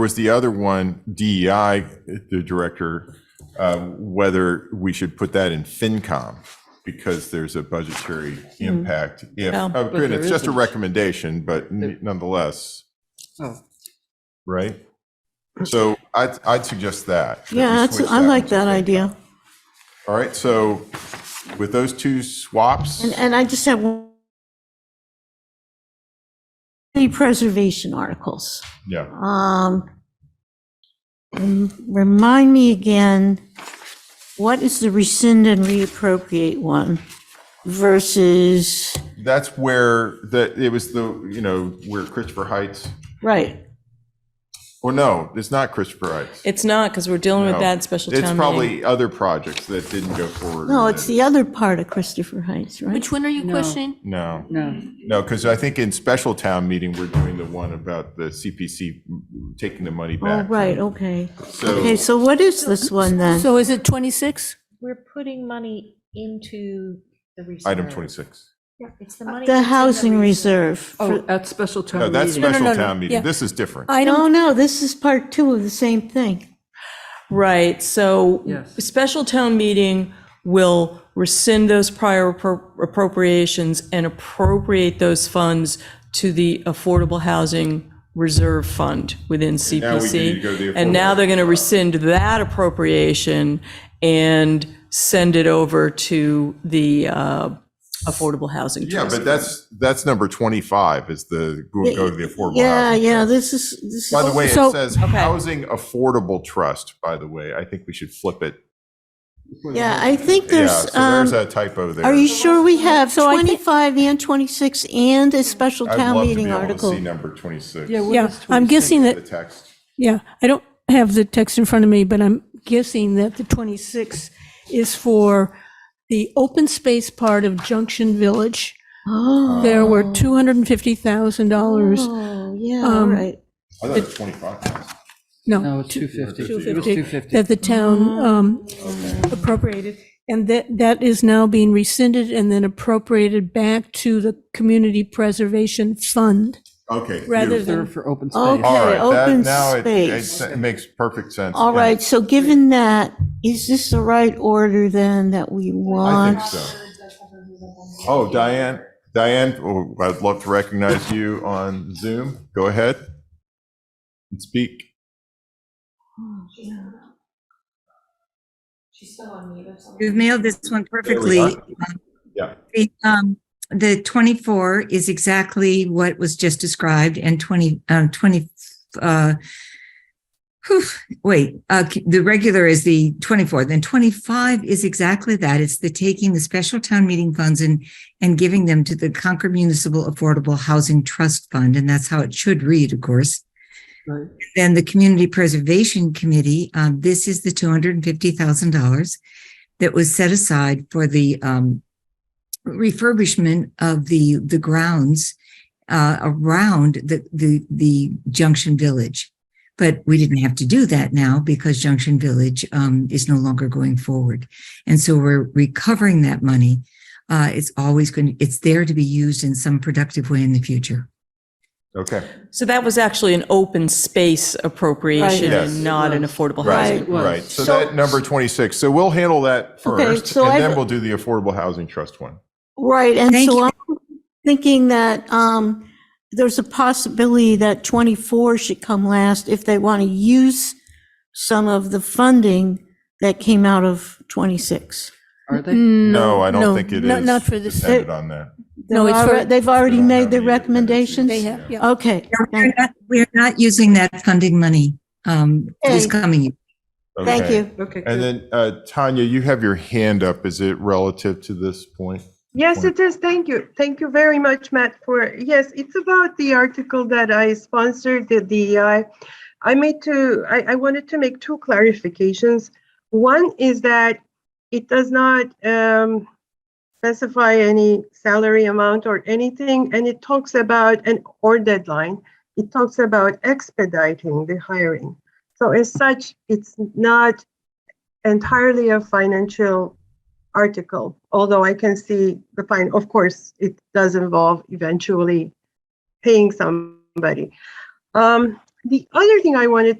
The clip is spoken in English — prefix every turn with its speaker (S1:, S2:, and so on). S1: was the other one, DEI, the director, uh, whether we should put that in FinCom because there's a budgetary
S2: Mm-hmm.
S1: impact. If,
S2: No.
S1: oh,
S3: But
S1: good, it's
S3: there
S1: just a
S3: isn't.
S1: recommendation, but
S3: There-
S1: n- nonetheless,
S3: Oh,
S1: right? So I'd, I'd suggest that. that we
S2: Yeah, that's-
S1: switch
S2: I like
S1: one
S2: that
S1: to
S2: idea.
S1: FinCom. All right, so with those two swaps,
S2: And, and I just have one. The preservation articles.
S1: yeah,
S2: Um, rem- Remind me again, what is the rescind and reappropriate one versus,
S1: that's where, that, it was the, you know, where Christopher Heights,
S2: right,
S1: or no, it's not Christopher Heights.
S2: It's not, because we're dealing with
S1: No.
S2: that special
S1: It's
S2: town meeting.
S1: probably other projects that didn't go forward.
S2: No,
S1: and
S2: it's
S1: then-
S2: the other part of Christopher Heights, right?
S4: Which one are you questioning?
S1: No,
S3: no.
S1: no, because I think in special town meeting, we're doing the one about the CPC taking the money
S2: Oh,
S1: back.
S2: right, okay.
S1: So,
S2: Okay, so what is this one then?
S4: So is it 26?
S5: We're putting money into the reserve.
S1: item 26.
S5: Yeah, It's the money. that's
S2: The
S5: in
S2: housing reserve. for-
S3: Oh, at special town
S1: No,
S3: meeting.
S1: that's special
S4: no,
S1: town
S4: no,
S1: meeting.
S4: yeah.
S1: This is different.
S2: No, no, this is part two of the same thing.
S6: Right, so
S3: Yes.
S6: special town meeting will rescind those prior appro- appropriations and appropriate those funds to the Affordable Housing Reserve Fund within
S1: now we need to
S6: CPC.
S1: go to the
S6: And now they're going to rescind that appropriation and send it over to the uh, Affordable Housing
S1: Yeah,
S6: Trust.
S1: but that's, that's number 25 is the, go go to the affordable
S2: Yeah,
S1: housing.
S2: yeah, this is, this
S1: By the
S2: is,
S1: way, it
S4: So-
S1: says Housing Affordable Trust, by the way. I think we should flip it.
S2: yeah, I think
S1: Yeah,
S2: there's,
S1: so
S2: um,
S1: there's a typo there.
S2: Are you sure we have
S4: So I think-
S2: 25 and 26 and a special
S1: I'd
S2: town
S1: love to be
S2: meeting
S1: able to
S2: article?
S1: see number 26.
S3: Yeah, what
S7: Yeah,
S3: is
S7: I'm
S3: 26?
S7: guessing
S1: The
S7: that,
S1: text.
S7: yeah, I don't have the text in front of me, but I'm guessing that the 26 is for the open space part of Junction Village.
S2: Oh,
S7: There were $250,000,
S2: oh, yeah, all
S7: Um,
S2: right.
S1: I thought it was 25.
S7: no,
S3: No, it's 250. It was
S7: 250,
S3: 250.
S7: that the town um, appropriated. And that, that is now being rescinded and then appropriated back to the Community Preservation Fund.
S1: Okay.
S7: Rather
S1: beautiful.
S7: than-
S3: Reserve for open
S2: Okay.
S3: space.
S1: All right, that,
S2: open
S1: now it-
S2: space.
S1: it, it makes perfect sense.
S2: All
S1: Yeah,
S2: right, so given that, is this the right order then that we
S1: I
S2: want?
S1: think so. Oh, Diane, Diane, oh, I'd love to recognize you on Zoom. Go ahead and speak.
S8: You've mailed this one
S1: we
S8: perfectly.
S1: are. Yeah.
S8: The, um, the 24 is exactly what was just described and 20, um, 20, uh, whew, wait, uh, the regular is the 24, then 25 is exactly that. It's the taking the special town meeting funds and, and giving them to the Concord Municipal Affordable Housing Trust Fund. And that's how it should read, of course.
S3: Right.
S8: Then the Community Preservation Committee, um, this is the $250,000 that was set aside for the, um, refurbishment of the, the grounds, uh, around the, the, the Junction Village. But we didn't have to do that now because Junction Village, um, is no longer going forward. And so we're recovering that money. Uh, it's always going, it's there to be used in some productive way in the future.
S1: Okay,
S6: So that was actually an open space appropriation
S1: Yes.
S6: and not an affordable housing.
S1: right,
S3: it was.
S1: right. So
S2: So-
S1: that number 26, so we'll handle that
S2: Okay,
S1: first,
S2: so
S1: and
S2: I've-
S1: then we'll do the Affordable Housing Trust one.
S2: Right, and
S8: Thank
S2: so
S8: you.
S2: I'm thinking that um, there's a possibility that 24 should come last if they want to use some of the funding that came out of 26.
S3: Are
S7: Hmm.
S3: they?
S1: No, I don't think it
S7: not-
S1: is
S7: Not for this,
S1: dependent on that.
S7: No,
S2: They're
S7: it's for-
S2: alre- They've already
S1: They don't
S2: made
S1: have
S2: their
S1: any dependencies.
S2: recommendations?
S7: they have, yeah.
S2: Okay.
S8: No, We're
S2: thank-
S8: not, we're not using that funding money, um, this
S2: Okay.
S8: coming year.
S2: Thank
S1: Okay.
S2: you.
S3: Okay,
S1: And
S3: good.
S1: then, uh, Tanya, you have your hand up. Is it relative to this point?
S9: Yes,
S1: point.
S9: it is. Thank you. Thank you very much, Matt, for, yes, it's about the article that I sponsored, the DEI. I made to, I, I wanted to make two clarifications. One is that it does not um, specify any salary amount or anything, and it talks about an or deadline. It talks about expediting the hiring. So as such, it's not entirely a financial article, although I can see the fine, of course, it does involve eventually paying somebody. Um, the other thing I wanted to